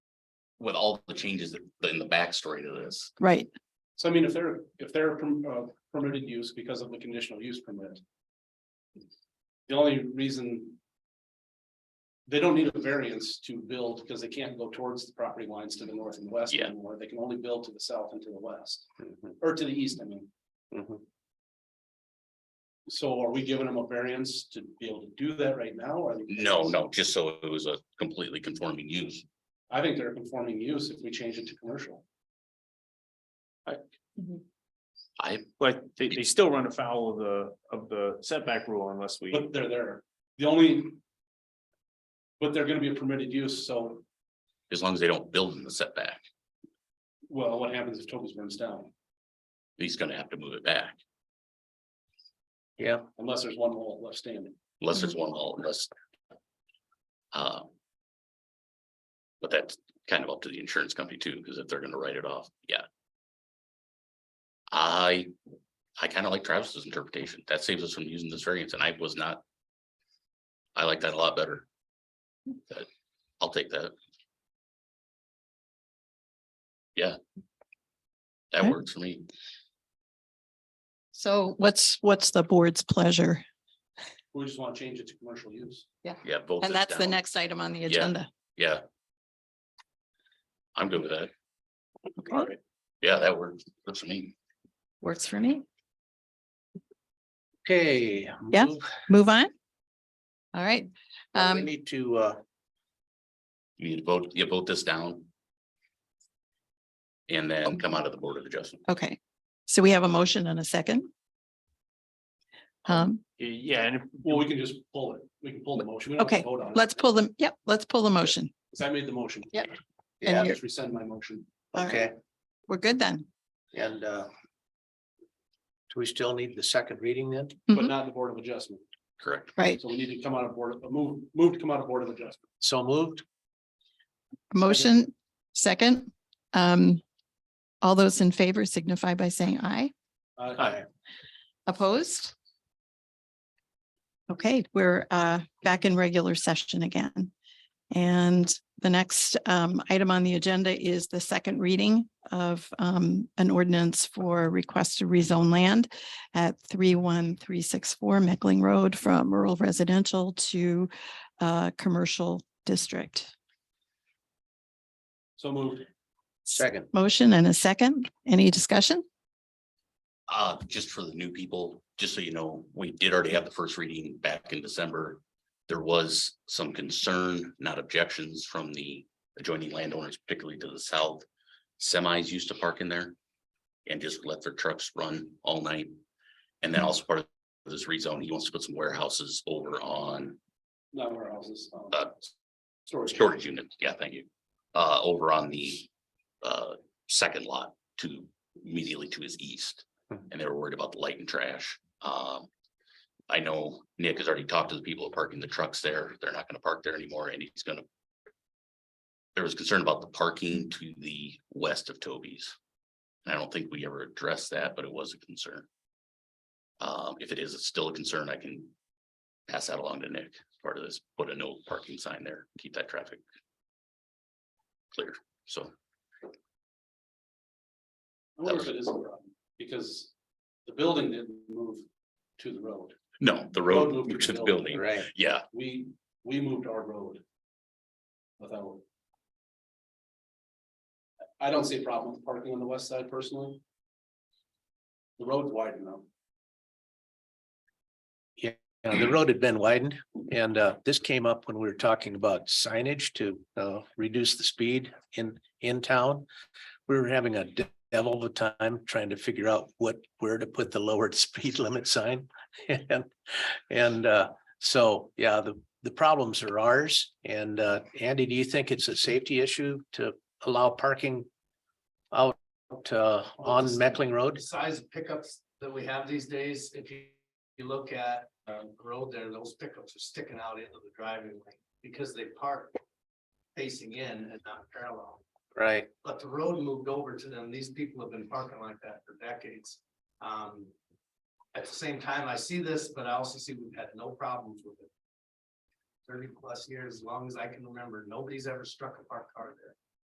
with all the changes that- in the backstory to this. right, So I mean, if they're, if they're perm- uh, permitted use because of the conditional use permit. The only reason. They don't need a variance to build because they can't go towards the property lines to the north and west Yeah. Mm-hmm. anymore. They can only build to the south and to the west, or to the east, I mean. So are we giving them a variance to be able to do that right now? or are they- No, no, just so it was a completely conforming use. I think they're conforming use if we change it to commercial. I, But they, they still run afoul of the, of the setback rule unless we, But they're there, the only. But they're gonna be a permitted use, so, as long as they don't build in the setback, well, what happens if Toby's burns down, he's gonna have to move it back. unless there's one hole left standing? Unless there's Mm-hmm. one hole, unless. uh, But that's kind of up to the insurance company too, because if they're gonna write it off, yeah. I, I kind of like Travis's interpretation. That saves us from using this variance and I was not. I like that a lot better. But I'll take that. Yeah. That Okay. works for me. so what's, what's the board's pleasure? We just wanna change it to commercial use. Yeah. vote And this that's the down. next item on the Yeah. agenda. Yeah. I'm good with that. Okay, Yeah, that works. That's for me. works for me. Okay. Yeah. move- Move on. All right, uh, We um, need to, uh, You need to vote, you vote this down. And then come out of the Board of Adjustment. okay, so we have a motion and a second. Um, yeah, and if- Well, we can just pull it, we can pull the motion. We don't have to Okay, vote on it. let's pull them, yep, let's pull the motion. 'Cause I made the motion. Yep. I And yeah, you're, just rescind my motion. all right, okay, we're good then. and, uh. Do we still need the second reading then? But Mhm. not the Board of Adjustment, Correct. Right, so we need to come out of Board, of- move, move to come out of Board of Adjustment. So moved? motion, second. Um, all those in favor signify by saying aye. Uh, Aye. Opposed? Okay, we're uh back in regular session again. And the next um item on the agenda is the second reading of um an ordinance for request to rezone land at three one three six four Meckling Road from rural residential to uh commercial district. So moved. Second. Motion and a second. Any discussion? Uh, just for the new people, just so you know, we did already have the first reading back in December. There was some concern, not objections from the adjoining landowners, particularly to the south. Semis used to park in there and just let their trucks run all night. And then also part of this rezone, he wants to put some warehouses over on Not warehouses. um, uh, Storage. storage unit, yeah, thank you. Uh, over on the uh, second lot to immediately to his east. And they were worried about the light and trash. Um, I know Nick has already talked to the people parking the trucks there. They're not gonna park there anymore and he's gonna. There was concern about the parking to the west of Toby's. And I don't think we ever addressed that, but it was a concern. Um, if it is still a concern, I can pass that along to Nick part of this, put a no parking sign there, keep that traffic. Clear, so I wonder if it is a problem, because the building didn't move to the road. no, the Road road moved moved to the building. building, Right. yeah, We, we moved our road. Without. I don't see a problem with parking on the west side personally. The road's wide enough. Uh, The road had been widened and, uh, this came up when we were talking about signage to, uh, reduce the speed in, in town. We were having a devil of a time trying to figure out what, where to put the lowered speed limit sign. And, and, uh, so, yeah, the, the problems are ours. And, uh, Andy, do you think it's a safety issue to allow parking out, uh, on Meckling Road? the size of pickups that we have these days, if you, you look at, um, the road there, those pickups are sticking out into the driving lane because they park facing in and not parallel. Right. But the road moved over to them. These people have been parking like that for decades. Um, at the same time, I see this, but I also see we've had no problems with it. Thirty plus years, as long as I can remember, nobody's ever struck a parked car there.